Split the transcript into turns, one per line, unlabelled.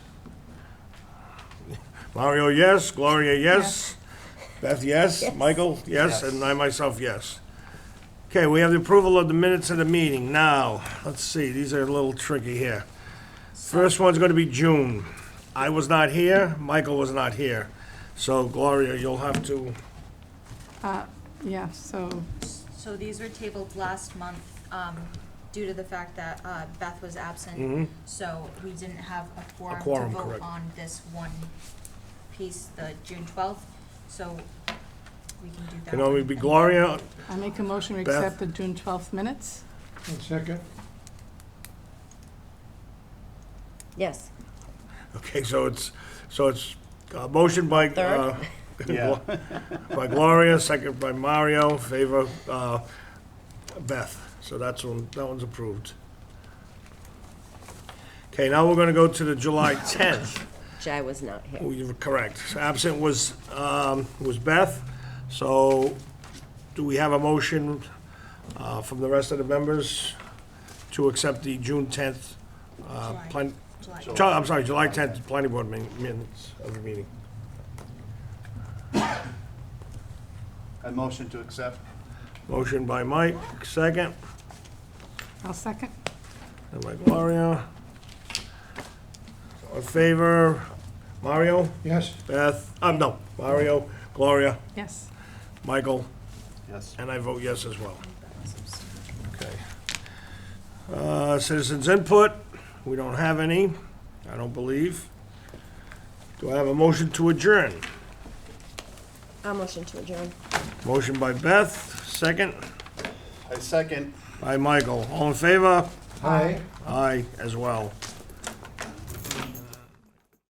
Mario, yes. Gloria, yes. Beth, yes. Michael, yes. And I myself, yes. Okay, we have the approval of the minutes of the meeting. Now, let's see, these are a little tricky here. First one's going to be June. I was not here, Michael was not here. So Gloria, you'll have to,
Yeah, so,
So these were tabled last month, um, due to the fact that, uh, Beth was absent. So we didn't have a quorum
Mm-hmm. quorum,
to vote
correct.
on this one piece, the June twelfth, so we can do that.
can only
one.
be
And
Gloria,
I make a motion to
Beth?
accept the June 12th minutes?
One second.
Yes.
Okay, so it's, so it's a motion by, uh,
Yeah.
by Gloria, second by Mario, favor, uh, Beth. So that's one, that one's approved. Okay, now we're gonna go to the July tenth.
Jai was not here.
You were correct. Absent was, um, was Beth. So do we have a motion, uh, from the rest of the members to accept the June tenth, uh,
July.
plan,
July-
Ju- I'm sorry, July 10th, planning board min- minutes of the meeting.
A motion to accept.
Motion by Mike, second,
I'll second.
and by Gloria. All in favor, Mario,
Yes,
Beth, um, no, Mario, Gloria,
Yes,
Michael,
Yes.
and I vote yes as well. Okay. Uh, Citizens input, we don't have any, I don't believe. Do I have a motion to adjourn?
I'll Uh, motion to adjourn.
Motion by Beth, second,
I second.
by Michael. All in favor?
aye.
Aye, as well.